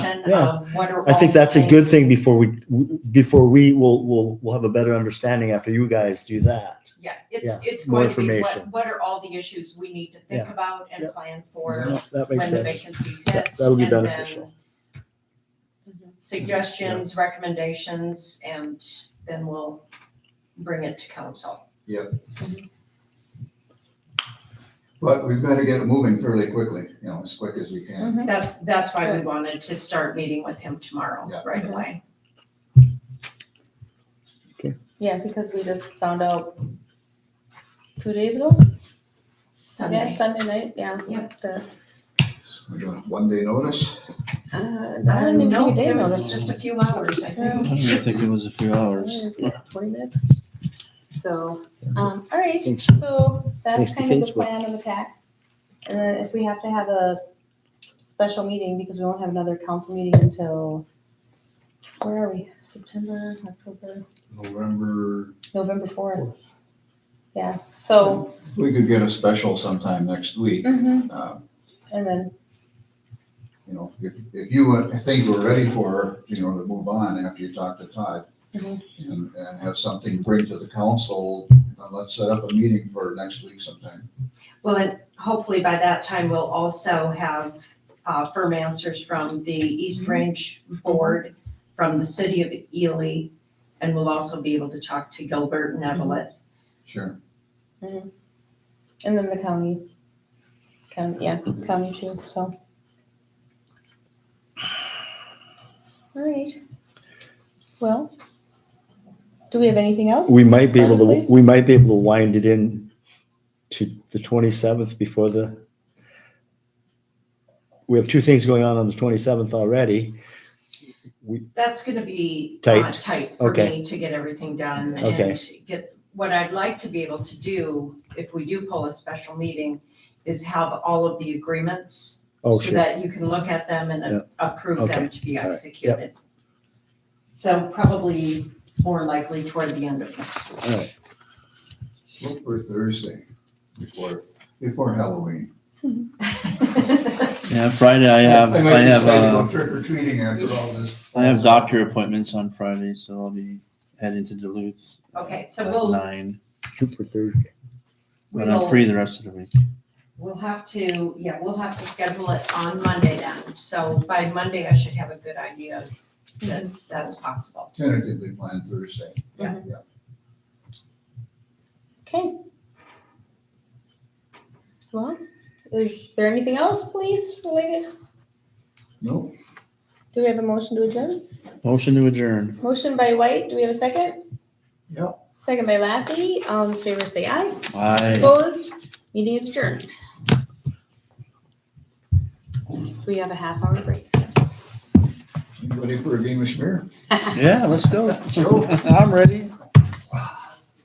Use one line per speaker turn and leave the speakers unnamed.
discussion
Yeah.
of what are.
I think
all the
that's a good
things-
thing before we, before we will, will, will have a better understanding after you guys do that.
Yeah, it's, it's
more
going to be, what,
information.
what are all the issues we need to think
Yeah.
about and
Yeah.
plan for
Yeah, That makes
when the
sense.
vacancies
That-
hit?
that'll be
and then
beneficial.
Suggestions, recommendations, and then we'll bring it to council.
But we've got to get it moving fairly quickly, you know, as quick as we can.
That's, that's why we wanted to start meeting with him tomorrow,
Yeah.
right away.
Yeah, because we just found out two days ago, yeah,
Sunday.
Sunday night, yeah.
Yep.
The,
We got one day notice.
uh,
I
I
don't
didn't even
know,
take a day
it
notice.
was just a few hours, I think.
I don't even think it was a few hours.
Twenty minutes. So, um, all right,
Thanks.
so
Thanks
that's
to
kind of the
Facebook.
plan of attack. And then if we have to have a special meeting, because we won't have another council meeting until, where are we? September, October,
November.
November fourth. Yeah, so,
We could get a special sometime next week.
mhm,
Uh,
and then,
You know, if, if you want- think we're ready for, you know, to move on after you talk to Todd
Mhm.
and, and have something to bring to the council, uh, let's set up a meeting for next week sometime.
Well, and hopefully by that time, we'll also have uh, firm answers from the East
Mm-hmm.
Range Board, from the city of Ely, and we'll also be able to talk to Gilbert and
Mm-hmm.
Evelyn.
Sure.
and then the county, county, yeah, county too, so. All right. Well, do we have anything else?
We might be able
Other place?
to, we might be able to wind it in to the twenty-seventh before the, we have two things going on on the twenty-seventh already.
That's gonna be uh,
Tight.
tight for
Okay.
me to get everything done
Okay.
and get, what I'd like to be able to do, if we do pull a special meeting, is have all of the agreements
Oh,
so
sure.
that you can look at them and
Yeah.
approve
Okay.
them to be
All right. Yep.
executed. So probably more likely toward the end of next week.
All right.
Look for Thursday before, before Halloween.
Yeah, Friday I have, I
might
have,
decide to go
uh,
Trick or treating after all this.
I have doctor appointments on Friday, so I'll be heading to Duluth.
Okay, so
at
we'll-
Nine,
Shoot for Thursday.
but I'm free the rest of the week.
We'll have to, yeah, we'll have to schedule it on Monday then. So by Monday, I should have a good idea that that is possible.
Tentatively planned Thursday.
Yeah.
Okay. Well, is there anything else, please, related?
Nope.
Do we have a motion to adjourn?
Motion to adjourn.
Motion by White, do we have a second?
Yep.
Second by Lassie, all in favor say aye.
Aye.
Opposed, meeting is adjourned. We have a half hour break.
You ready for a game of schmear?
Yeah, let's go.
Sure.
I'm ready.